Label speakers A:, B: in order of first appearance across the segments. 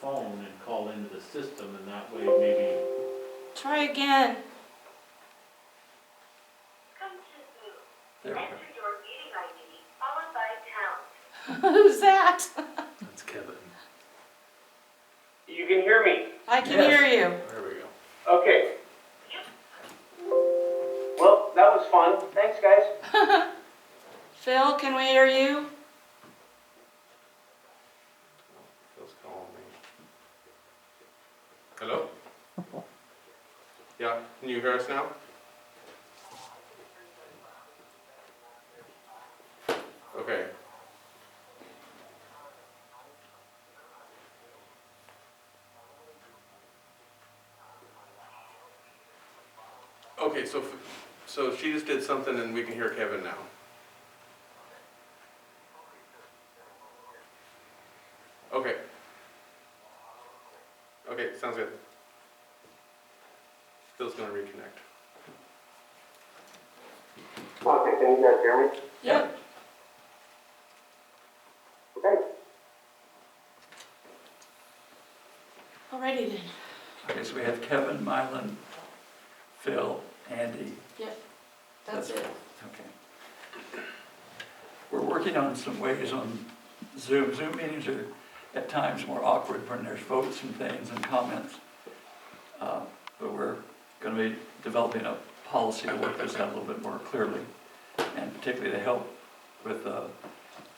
A: phone and call into the system and that way maybe,
B: Try again.
C: Come to Zoom.
D: There we
C: Enter your meeting ID followed by pound.
B: Who's that?
D: That's Kevin.
E: You can hear me.
B: I can
D: Yes.
B: hear you.
D: There we go.
E: Okay. Well, that was fun. Thanks, guys.
B: Phil, can we hear you?
D: Phil's calling me. Hello? Yeah, can you hear us now? Okay. Okay, so, f- so she just did something and we can hear Kevin now. Okay. Okay, sounds good. Phil's gonna reconnect.
E: Okay, can you guys hear me?
B: Yep.
E: Okay.
B: Alrighty then.
F: Okay, so we have Kevin, Mylan, Phil, Andy.
B: That's it.
F: Okay. We're working on some ways on Zoom. Zoom meetings are at times more awkward when there's votes and things and comments. Uh, But we're going to be developing a policy to work this out a little bit more clearly, and particularly to help with uh,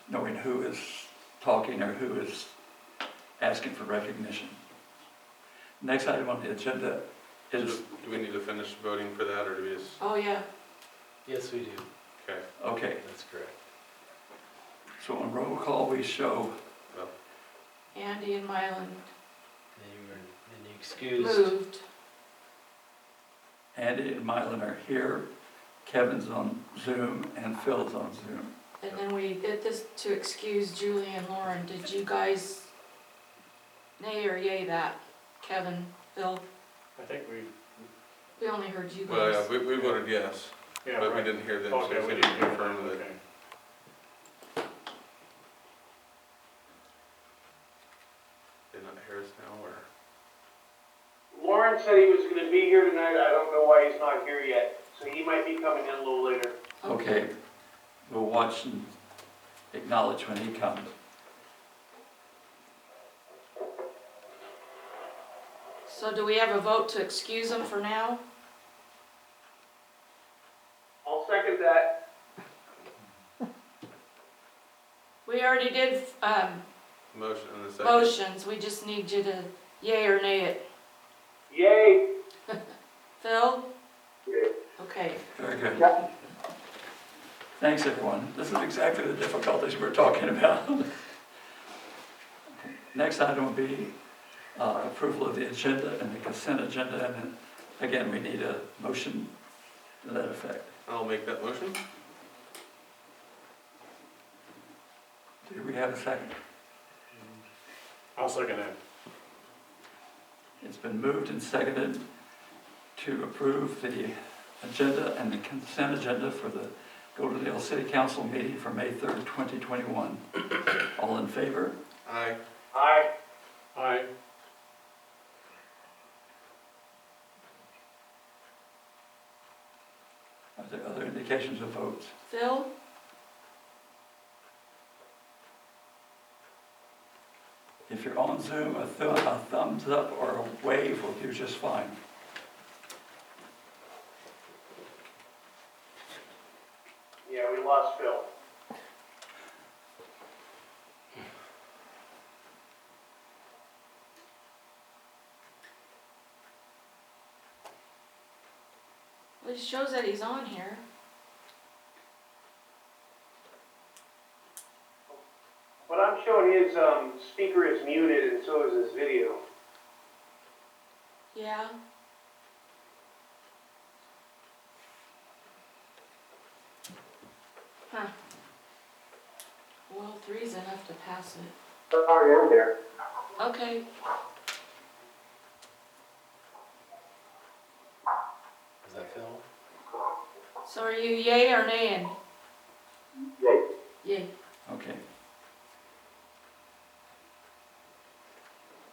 F: knowing who is talking or who is asking for recognition. Next item on the agenda is
D: Do we need to finish voting for that, or do we just,
B: Oh, yeah.
G: Yes, we do.
D: okay,
F: Okay,
G: That's correct.
F: so on roll call, we show,
B: Andy and Mylan
G: And you were, and you excused.
B: moved.
F: Andy and Mylan are here, Kevin's on Zoom, and Phil's on Zoom.
B: And then we did this to excuse Julie and Lauren. Did you guys nay or yay that? Kevin, Phil,
A: I think we,
B: we only heard you
D: well,
B: guys.
D: yeah, we, we voted yes,
A: yeah,
D: but we
A: right.
D: didn't hear them, so
A: Okay,
D: we
A: we
D: didn't
A: didn't do that,
D: confirm that.
A: okay.
D: Did not hear us now, or?
E: Lauren said he was going to be here tonight. I don't know why he's not here yet. So he might be coming in a little later.
F: Okay, we'll watch and acknowledge when he comes.
B: So do we have a vote to excuse them for now?
E: I'll second that.
B: We already did, um,
D: Motion in a second.
B: motions. We just need you to yay or nay it.
E: Yay.
B: Phil?
E: Yay.
B: Okay.
F: Very good.
E: Yeah.
F: Thanks, everyone. This is exactly the difficulties we're talking about. Next item will be uh, approval of the agenda and the consent agenda, and then, again, we need a motion to that effect.
D: I'll make that motion.
F: Do we have a second?
A: I'll second that.
F: It's been moved and seconded to approve the agenda and the consent agenda for the Goldendale City Council meeting for May 3rd, 2021. All in favor?
D: Aye.
E: Aye.
A: Aye.
F: Are there other indications of votes?
B: Phil?
F: If you're on Zoom, a thu- a thumbs up or a wave will do just fine.
E: Yeah, we lost Phil.
B: Well, it shows that he's on here.
E: What I'm showing his um, speaker is muted and so is his video.
B: Yeah. Huh. Well, three's enough to pass it.
E: Sorry, I'm there.
B: Okay,
G: Is that Phil?
B: so are you yay or naying?